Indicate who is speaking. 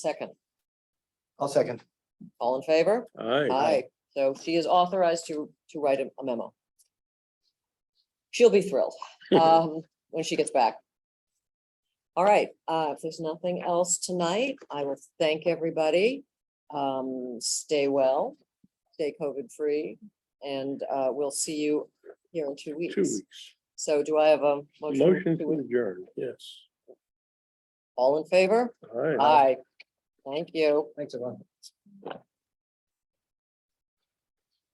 Speaker 1: Second,
Speaker 2: I'll second.
Speaker 1: all in favor?
Speaker 3: Aye.
Speaker 1: Aye. So she is authorized to, to write a a memo. She'll be thrilled, um, when she gets back. All right, uh, if there's nothing else tonight, I will thank everybody. Um, stay well, stay COVID-free, and, uh, we'll see you here in two
Speaker 3: Two
Speaker 1: weeks.
Speaker 3: weeks.
Speaker 1: So do I have a motion?
Speaker 3: Motion
Speaker 1: to-
Speaker 3: to adjourn, yes.
Speaker 1: All in favor?
Speaker 3: Aye.
Speaker 1: Aye. Thank you.
Speaker 2: Thanks, everyone.